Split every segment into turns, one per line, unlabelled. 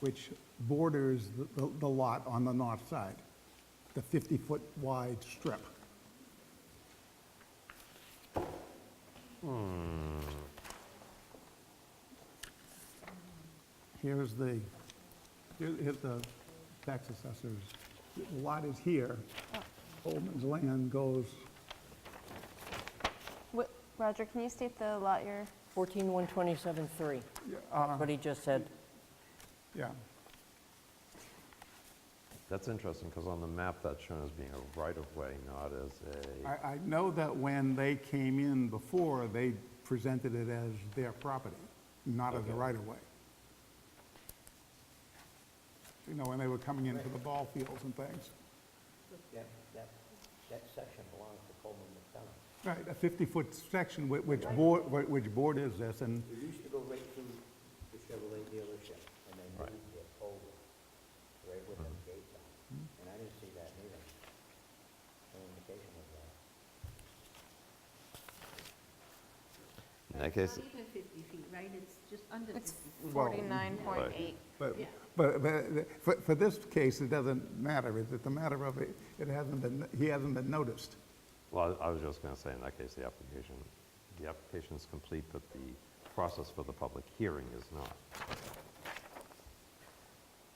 which borders the- the the lot on the north side, the 50-foot wide strip. Hmm. Here's the, here- here's the tax assessors. The Lot is here. Coleman's land goes,
Wh- Roger, can you state the lot you're,
14127.3, what he just said.
yeah,
That's interesting, because on the map, that's shown as being a right-of-way, not as a,
I, I know that when they came in before, they presented it as their property, not as a right-of-way. You know, when they were coming in for the ball fields and things.
That, that, that section belongs to Coleman McDonald.
Right, a 50-foot section whi- which board, whi- which board is this, and,
It used to go right through the Chevrolet dealership, and they moved it over, right where them gates are. And I didn't see that either. No indication of that.
in that case,
Not even 50 feet, right? It's just under 50.
it's 49.8.
but, but, but for, for this case, it doesn't matter, it's it's a matter of, it it hasn't been, he hasn't been noticed.
well, I was just going to say, in that case, the application, the application is complete, but the process for the public hearing is not.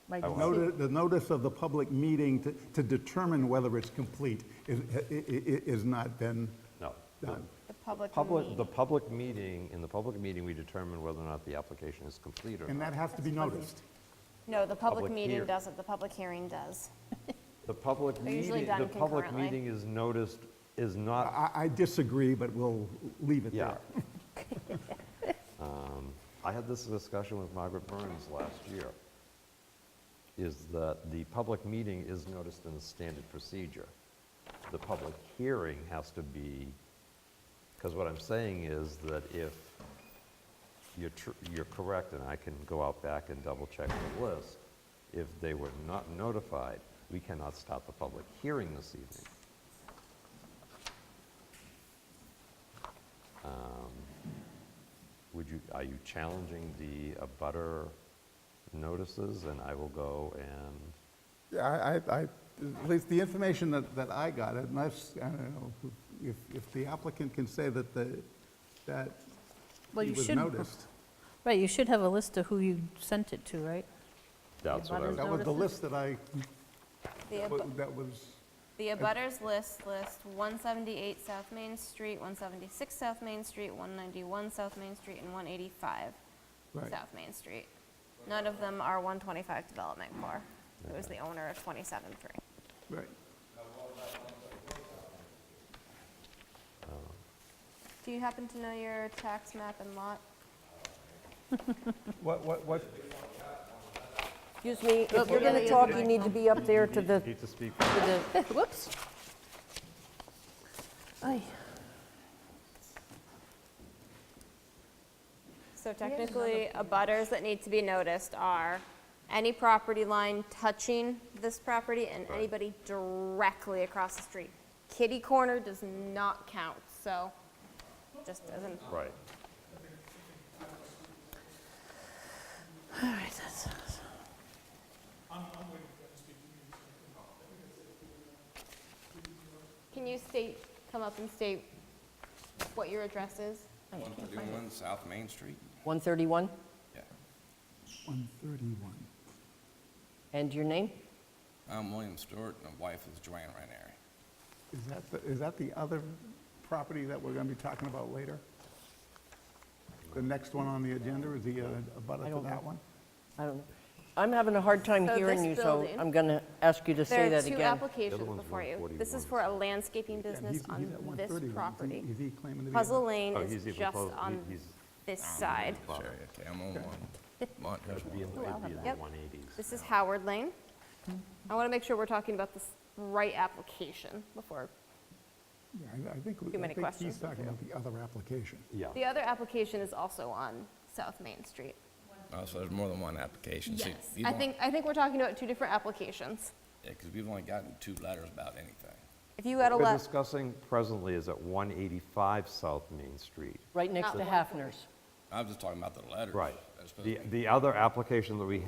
Mike,
I
you
will.
Oh, see-
Noti- The notice of the public meeting to, to determine whether it's complete is, i- i- i- is not been
No. the
done.
The public
Public, the
meeting.
public meeting, in the public meeting, we determine whether or not the application is complete or
And that
not.
has to be noticed.
No, the public
public
meeting
hear-
doesn't, the public hearing does.
The public
They're usually
meeting, the
done
public
concurrently.
meeting is noticed, is not,
I, I disagree, but we'll leave it
yeah.
there.
Um, I had this discussion with Margaret Burns last year, is that the public meeting is noticed in the standard procedure. The public hearing has to be, because what I'm saying is that if you're, tr- you're correct, and I can go out back and double-check the list, if they were not notified, we cannot start the public hearing this evening. Um, Would you, are you challenging the abutter notices? And I will go and,
Yeah, I- I, I, at least the information that, that I got, unless, I don't know, if, if the applicant can say that the, that
Well,
he
you
was
should-
noticed.
Right, you should have a list of who you sent it to, right?
that's what I
Abutters
was,
That was the list
Notices?
that I,
The ab-
that was,
The abutters list, list 178 South Main Street, 176 South Main Street, 191 South Main Street, and 185
right.
South Main Street. None of them are 125 Development Corps. It was the owner of 27-3.
Right.
Do you happen to know your tax map and lot?
What, what, what,
Excuse me, if you're going
really
to
is
talk,
a
you need to be up there to the,
need to speak.
to the-
Whoops. Aye.
So technically, abutters that need to be noticed are any property line touching this property and anybody directly across the street. Kitty corner does not count, so just doesn't.
Right.
All right, that's,
Can you state, come up and state what your address is?
131 South Main Street?
131,
Yeah.
131?
and your name?
I'm William Stewart, and my wife is Joanne Ranieri.
Is that, the- is that the other property that we're going to be talking about later? The next one on the agenda is the, uh, abutter
I
to
don't
that
know.
one?
I don't know. I'm having a hard time
So
hearing
this
you, so
building-
I'm going to ask you to say
There are
that
two
again.
applications
one's
before you. This is
141,
for a landscaping
And
business
he's- he's
on
at
this
131. Is he-
property.
Is he claiming to be? a-
Puzzle Lane
Oh,
is
he's even
just
close. He-
on
he's-
this side.
Sure, Okay, I'm on one. Mont- here's
It'd be in
one.
the it'd be in the
Yep.
180s.
This is Howard Lane. I want to make sure we're talking about this right application before.
Yeah, I- I think, we-
Too
I
many
think he's
questions.
talking about the other application.
Yeah.
The other application is also on South Main Street.
Oh, so there's more than one application. See, we've
I
only-
think, I think we're talking about two different applications.
Yeah, because we've only gotten two letters about anything.
If you had a
We're
left,
discussing presently is at 185 South Main Street.
Right next
Not
to
one.
Hafner's.
I was just talking about the letters.
Right.
That's supposed to
The,
be-
the other application that we